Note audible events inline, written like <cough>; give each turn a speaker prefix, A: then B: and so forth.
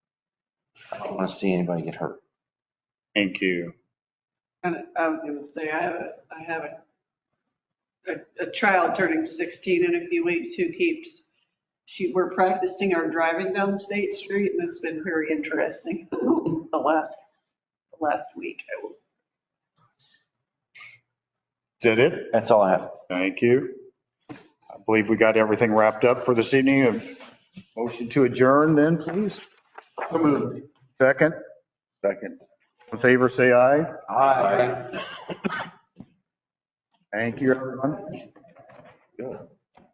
A: don't want to see anybody get hurt.
B: Thank you.
C: And I was gonna say, I have, a I have a, a, a child turning 16 in a few weeks who keeps, she, we're practicing our driving down State Street and it's been very interesting <laughs> the last, the last week. I was,
B: Did it?
A: That's all I have.
B: Thank you. I believe we got everything wrapped up for this evening. A Motion to adjourn then, please. Second? Second. In favor, say aye. Aye. Thank you, everyone. Good.